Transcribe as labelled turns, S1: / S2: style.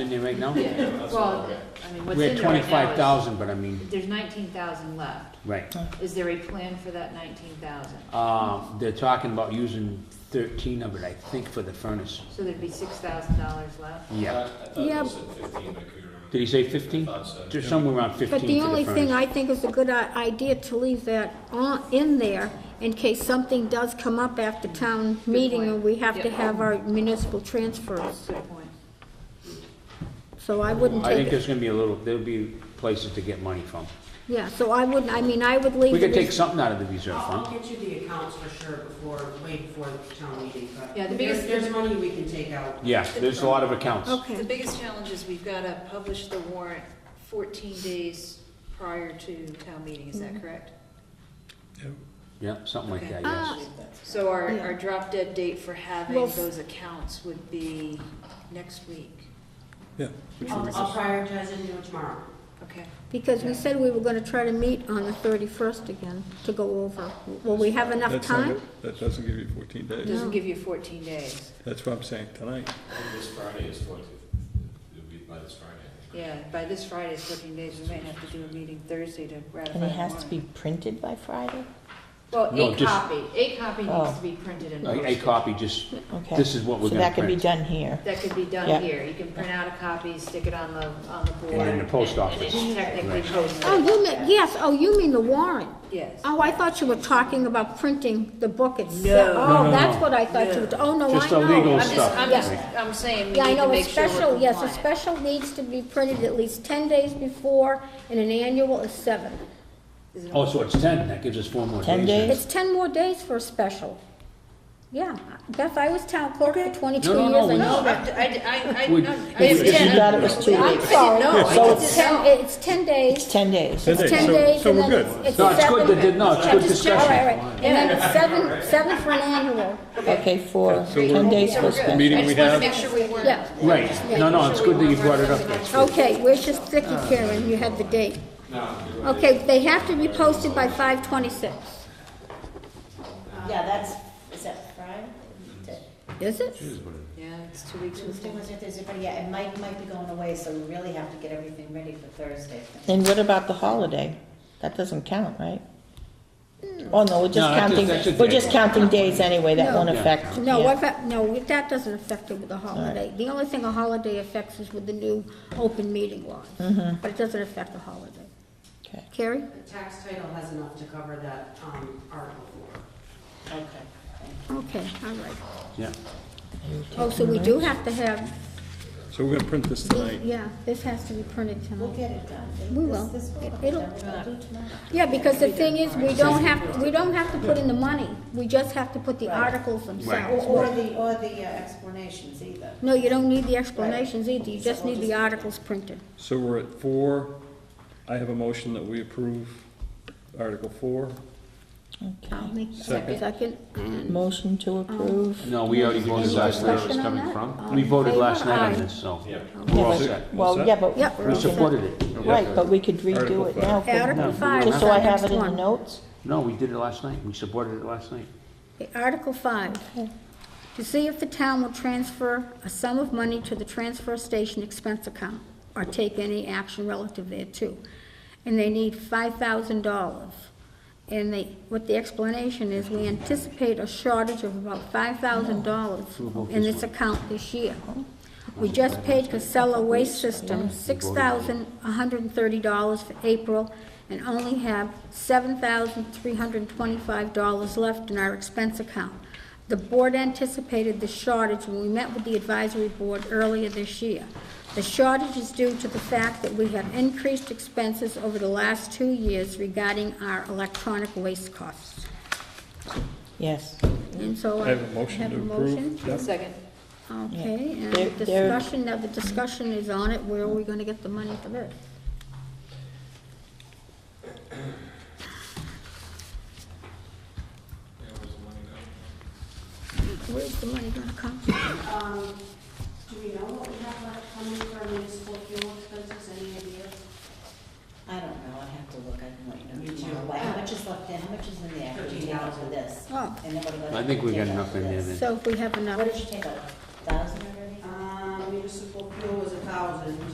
S1: In there right now?
S2: Well, I mean, what's
S1: We
S2: in
S1: had
S2: there
S1: twenty-five
S2: right now
S1: thousand, but I mean,
S2: is, there's nineteen thousand left.
S1: right.
S2: Is there a plan for that nineteen thousand?
S1: Uh, they're talking about using thirteen of it, I think, for the furnace.
S2: So there'd be six thousand dollars left?
S1: Yeah.
S3: I thought
S4: Yeah.
S1: Uh,
S3: it was at fifteen, I could remember.
S1: Did he say fifteen?
S3: I thought so.
S1: Just somewhere around fifteen
S4: But
S1: for the
S4: the only thing
S1: furnace.
S4: I think is a good i- idea to leave that on, in there in case something does come up after town meeting
S2: point.
S4: and we have to
S2: Yeah.
S4: have our municipal transfers.
S2: Good point.
S4: So I wouldn't
S1: I think
S4: take, it.
S1: there's gonna be a little, there'll be places to get money from.
S4: yeah, so I wouldn't, I mean, I would leave
S1: We
S4: it
S1: could take
S4: as,
S1: something out of the reserve
S5: I'll I'll
S1: fund.
S5: get you the accounts for sure before, way before the town meeting, but
S2: Yeah, the
S5: there's,
S2: biggest-
S5: there's money we can take out.
S1: Yeah, there's a lot of accounts.
S2: The
S4: okay,
S2: biggest challenge is we've gotta publish the warrant fourteen days prior to town meeting, is
S6: Mm-hmm.
S2: that correct?
S1: Yeah, something like that,
S2: Okay.
S4: Uh,
S1: yes.
S2: So our,
S4: Yeah.
S2: our drop dead date for having
S4: Well, f-
S2: those accounts would be next week,
S7: Yeah,
S5: I'll I'll prioritize it and do it tomorrow.
S2: okay?
S4: because we said we were gonna try to meet on the thirty-first again to go over. Will we have enough
S7: that's not
S4: time?
S7: good. That doesn't give you fourteen
S2: It
S7: days.
S2: doesn't give you fourteen days,
S7: That's what I'm saying tonight.
S3: And This Friday is twenty, it'll be by this Friday. I think.
S2: yeah, by this Friday, it's fourteen days, we might have to do a meeting Thursday to ratify the
S6: And it has to
S2: warrant.
S6: be printed by Friday?
S2: Well,
S1: No,
S2: a
S1: just-
S2: copy, a copy needs
S6: Oh.
S2: to be printed
S4: Uh,
S2: and
S1: A, a
S2: posted.
S1: copy, just,
S6: Okay.
S1: this is what we're
S6: So
S1: gonna
S6: that could be
S1: print.
S6: done here.
S2: That could be
S6: Yeah.
S2: done here, you can print out a copy, stick it on the, on the board.
S1: And in the post office.
S2: And it's technically posted.
S4: Oh, you mean, yes, oh, you mean the warrant?
S2: Yes.
S4: Oh, I thought you were talking about printing the book
S2: No.
S4: itself.
S1: No, no,
S4: Oh, that's
S1: no.
S4: what I thought you were, oh, no, I know.
S1: Just the legal
S2: I'm just,
S1: stuff.
S2: I'm just, I'm saying we
S4: Yeah, I
S2: need to
S4: know, a
S2: make sure we're
S4: special, yes, a
S2: compliant.
S4: special needs to be printed at least ten days before, and an annual is seven.
S1: Oh, so it's ten, that gives us four more days.
S6: 10
S1: then.
S6: days?
S4: It's ten more days for a special. Yeah, Beth, I was town clerk for twenty-two
S1: No, no,
S4: years,
S1: no,
S4: I
S1: we-
S4: know
S2: No, Oh, I,
S4: that.
S2: I, I, I,
S1: We-
S2: no, I
S1: It's-
S6: If you
S2: understand.
S6: thought it was two
S4: I'm
S6: weeks,
S4: sorry.
S2: No, I
S6: So
S2: didn't
S4: It's ten,
S2: know.
S4: it's ten
S6: it's
S4: days,
S6: 10 days.
S7: Ten
S4: it's
S7: days,
S4: ten
S7: so,
S4: days,
S7: so
S4: and then
S7: we're good.
S4: it's it's seven.
S1: No, it's good, that did- no, it's
S4: I
S1: good
S4: just- all right,
S1: discussion.
S4: all right. And then it's seven, seven for an annual.
S6: Okay, for
S7: So
S6: 10
S7: we're-
S6: days for
S2: We're good.
S6: special.
S7: meeting
S2: I
S7: we
S2: just wanted to
S7: have-
S2: make sure we weren't.
S4: Yeah.
S1: Right, no, no, it's good that you brought it up. That's good.
S4: Okay, where's your sticky,
S6: Ah.
S4: Karen? You have the date. Okay, they have to be posted by five twenty-six.
S8: Yeah, that's, is that Friday?
S4: Is it?
S2: Yeah, it's two weeks from
S8: Tuesday,
S2: today.
S8: Wednesday, Thursday, Friday, yeah, and Mike might be going away, so we really have to get everything ready for Thursday.
S6: And what about the holiday? That doesn't count, right? Oh, no,
S1: No,
S6: we're just
S1: that's-
S6: counting,
S1: that's a
S6: we're
S1: day.
S6: just counting days anyway, that
S4: No.
S6: won't
S1: Yeah.
S6: affect.
S4: No,
S6: yeah.
S4: what about, no, that doesn't affect it with a holiday. The only thing a holiday affects is with the new open meeting laws. But it doesn't affect a holiday.
S6: Mm-hmm. Okay.
S4: Carrie?
S5: The tax title has enough to cover that, um, article for.
S8: Okay.
S4: Okay, all right.
S1: Yeah.
S4: Oh, so we do have to have,
S7: So we're gonna print this tonight.
S4: yeah, this has to be printed
S8: We'll
S4: tonight.
S8: get it done.
S4: We will.
S8: This, this will get
S4: It'll-
S8: done, we'll do tomorrow.
S4: Yeah, because the thing is, we don't have, we don't have to put in the money. We just have to put the articles
S8: Or,
S4: themselves.
S8: or the, or the uh, explanations either.
S4: No, you don't need the explanations either. You just need the articles printed.
S7: So we're at four. I have a motion that we approve Article four.
S4: I'll
S6: Okay.
S4: make a
S7: Second.
S4: second.
S6: Motion to approve.
S1: No, we already voted
S4: Any
S1: last night.
S4: discussion on that? All
S1: We
S4: in
S1: voted
S4: favor?
S1: last night
S4: Aye.
S1: on this, so
S3: Yeah.
S1: we're all
S6: Yeah, but-
S1: set.
S6: Well, yeah, but.
S4: Yep. We
S6: we're gonna-
S1: supported it.
S6: Right, but we could
S7: Article
S6: redo it
S7: five.
S6: now.
S4: Yeah,
S6: for-
S4: Article
S1: No,
S4: five is
S6: Just so
S4: the
S6: I have
S4: next
S6: it in the
S4: one.
S6: notes.
S1: No, we did it last night. We supported it last night.
S4: Okay, Article five, to see if the town will transfer a sum of money to the transfer station expense account or take any action relative thereto. And they need five thousand dollars. And they, what the explanation is, we anticipate a shortage of about five thousand dollars in this account this year. We just paid Casella Waste System six thousand one hundred and thirty dollars for April and only have seven thousand three hundred and twenty-five dollars left in our expense account. The board anticipated the shortage when we met with the advisory board earlier this year. The shortage is due to the fact that we have increased expenses over the last two years regarding our electronic waste costs.
S6: Yes.
S4: And so
S7: I
S4: I
S7: have a motion
S4: have
S7: to
S4: a motion.
S7: approve. Yep.
S2: Second,
S4: Okay, and
S6: There- there-
S4: discussion, now the discussion is on it, where are we gonna get the money for this? Where's the money gonna come from?
S5: Um, do we know what we have left coming for municipal fuel expenses, any idea?
S8: I don't know, I have to look, I can let you know
S5: Me too.
S8: tomorrow. Like, How much is left in, how much is in there? Did you take out for this?
S4: Oh.
S8: And then what about?
S1: I think we got enough in there then.
S4: So if we have
S8: What
S4: enough,
S8: did you take out, thousand already?
S5: Um, municipal municipal fuel was a thousand.